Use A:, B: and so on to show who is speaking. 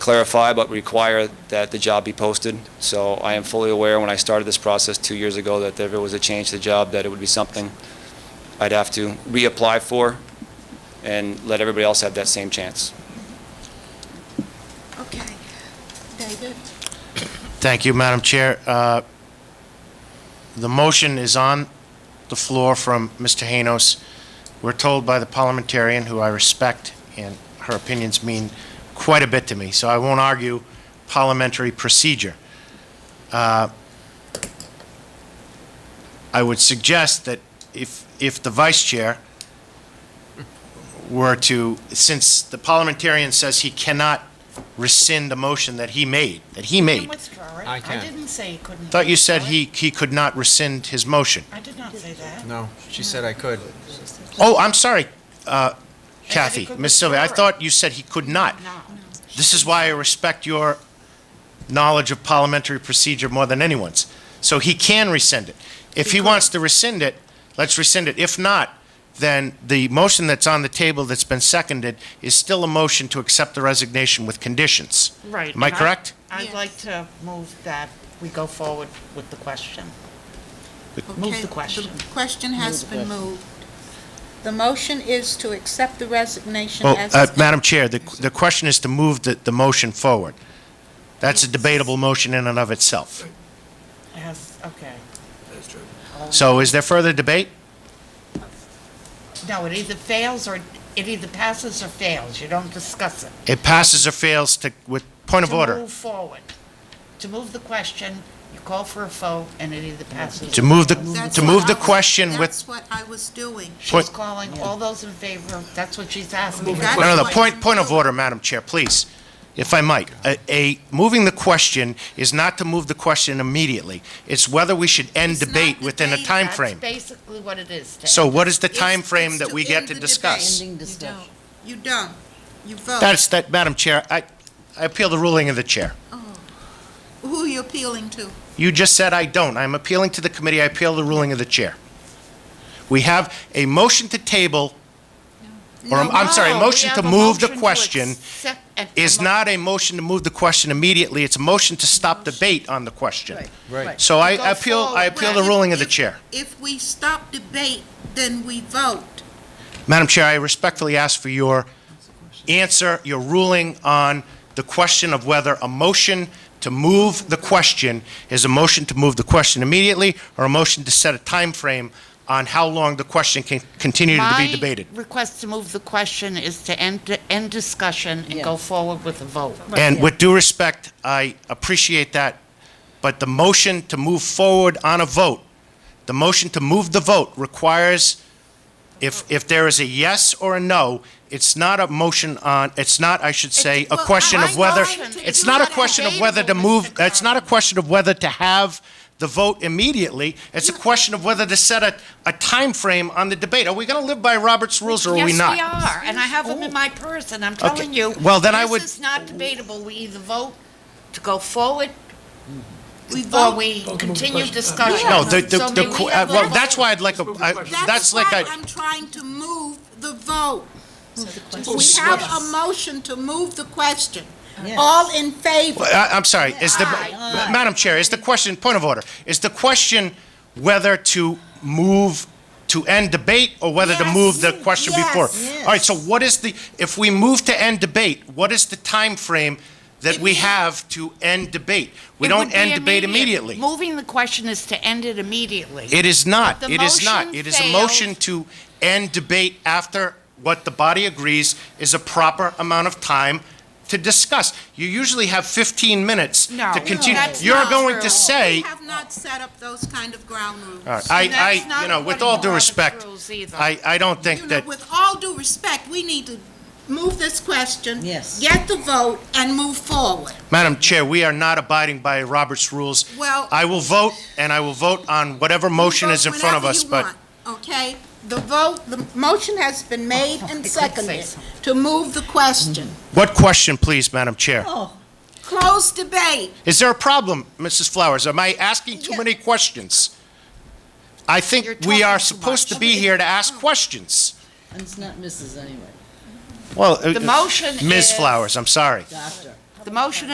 A: clarify but require that the job be posted. So I am fully aware, when I started this process two years ago, that if there was a change to the job, that it would be something I'd have to reapply for and let everybody else have that same chance.
B: Okay. David?
C: Thank you, Madam Chair. Uh, The motion is on the floor from Mr. Hanos. We're told by the parliamentarian, who I respect, and her opinions mean quite a bit to me, so I won't argue parliamentary procedure. Uh, I would suggest that if, if the vice chair were to, since the parliamentarian says he cannot rescind the motion that he made, that he
B: You
C: made.
B: can withdraw it.
D: I can.
B: didn't say you couldn't.
C: Thought you said
B: withdraw it.
C: he, he could not rescind his motion.
B: I did not say that.
D: No, she said I could.
C: Oh, I'm sorry, uh, Kathy,
B: could
C: Ms. Sylvia, I
B: withdraw it.
C: thought you said he could not.
B: No.
C: This is why I respect your knowledge of parliamentary procedure more than anyone's. So he can rescind it. If he wants to rescind it, let's rescind it. If not, then the motion that's on the table that's been seconded is still a motion to accept the resignation with conditions.
E: Right.
C: Am I
E: and
C: correct?
E: I'd
B: Yes.
E: like to move that we go forward with the question. Move
B: Okay,
E: the question.
B: The question has been moved. The motion is to accept the resignation
C: Well,
B: as.
C: uh, Madam Chair, the, the question is to move the, the motion forward. That's a debatable motion in and of itself.
E: Yes, okay.
C: So is there further debate?
E: No, it either fails or, it either passes or fails. You don't discuss it.
C: It passes or fails to, with, point of
E: To
C: order.
E: move forward. To move the question, you call for a vote, and it either passes.
C: To
E: or
C: move the,
E: fails.
B: That's
C: to
B: what
C: move the
B: I was-
C: question with,
B: That's what I was doing.
E: She's
C: Point-
E: calling all those in favor, that's what she's asking.
B: That's
C: no, no, the
B: what
C: point,
B: I'm
C: point of
B: doing.
C: order, Madam Chair, please, if I might. A, a, moving the question is not to move the question immediately. It's whether we should end
B: It's not
C: debate within a
B: debate,
C: time
E: That's
C: frame.
E: basically what it is, Ted.
C: So what is the
B: It's-
C: time frame
B: it's
C: that
B: to
C: we
B: end
C: get to
B: the
C: discuss?
B: debate. You don't. You don't. You vote.
C: That's, that, Madam Chair, I, I appeal the ruling of the chair.
B: Who are you appealing to?
C: You just said I don't. I'm appealing to the committee. I appeal the ruling of the chair. We have a motion to table, or I'm- I'm sorry, a
E: No,
C: motion
E: we
C: to
E: have a
C: move the
E: motion to
C: question
E: accept- a- a
C: is
E: mo-
C: not a motion to move the question immediately. It's a motion to stop debate on the question.
E: Right.
D: Right.
C: So I
E: To go
C: appeal, I
E: forward.
C: appeal
B: Well,
C: the
B: if-
C: ruling of the
B: if-
C: chair.
B: If we stop debate, then we vote.
C: Madam Chair, I respectfully ask for your answer, your ruling on the question of whether a motion to move the question is a motion to move the question immediately or a motion to set a time frame on how long the question can continue to be debated.
E: My request to move the question is to end, end discussion and go forward with a vote.
C: And with due respect, I appreciate that, but the motion to move forward on a vote, the motion to move the vote requires, if, if there is a yes or a no, it's not a motion on, it's not, I should say, a
B: well,
C: question
E: I
C: of whether,
E: motion to
C: it's
E: do
C: not a
E: that
C: question of whether to
E: debatable,
C: move,
E: Mr.
C: it's not a question of whether to have the vote immediately, it's a question of whether to set a, a timeframe on the debate. Are we going to live by Robert's rules or are we not?
E: Yes, we are, and I have them in my purse, and I'm telling you.
C: Oh. Well, then I would-
E: This is not debatable. We either vote to go forward
B: We
E: or
B: vote.
E: we continue discussion.
C: No, the, the,
E: So
C: the,
E: may we
C: que- uh,
E: have a
C: well,
E: vote?
C: that's why I'd like, a. I-
B: That's
C: that's like
B: why
C: I.
B: I'm trying to move the vote. We have a motion to move the question. All in favor?
C: I- I'm sorry, is the,
B: Aye,
C: Madam Chair, is the question, point of order, is the question whether to move, to end debate, or whether to
B: Yes.
C: move the question
B: Yes.
C: before? All right, so what is the, if we move to end debate, what is the time frame that we have to end debate? We
E: It
C: don't
E: would be
C: end debate
E: immediate.
C: immediately.
E: Moving the question is to end it immediately.
C: It is not,
E: But the
C: it is not.
E: motion
C: It is a motion
E: failed.
C: to end debate after what the body agrees is a proper amount of time to discuss. You usually have 15 minutes
E: No,
C: to continue.
E: that's
C: You're
E: not
C: going to
E: true.
C: say,
B: We have not set up those kind of ground rules.
C: All right, I,
E: that's
C: I,
E: not
C: you know, with
E: according
C: all
E: to
C: due
E: Robert's
C: respect,
E: rules either.
C: I, I don't
B: You
C: think
B: know,
C: that,
B: with all due respect, we need to move this question.
F: Yes.
B: Get the vote and move forward.
C: Madam Chair, we are not abiding by Robert's rules.
B: Well-
C: I will vote, and I will vote on whatever motion is in front of us, but.
B: Whenever you want, Okay, the vote, the motion has been made and seconded to move the question.
C: What question, please, Madam Chair?
B: Close debate.
C: Is there a problem, Mrs. Flowers? Am I asking too
B: Yeah.
C: many questions? I
E: You're
C: think we are
E: talking too
C: supposed to
E: much.
C: be here to ask questions.
F: And it's not Mrs. anyway,
C: Well,
E: The motion
C: Ms.
E: is-
C: Flowers, I'm sorry.
F: doctor.
E: The motion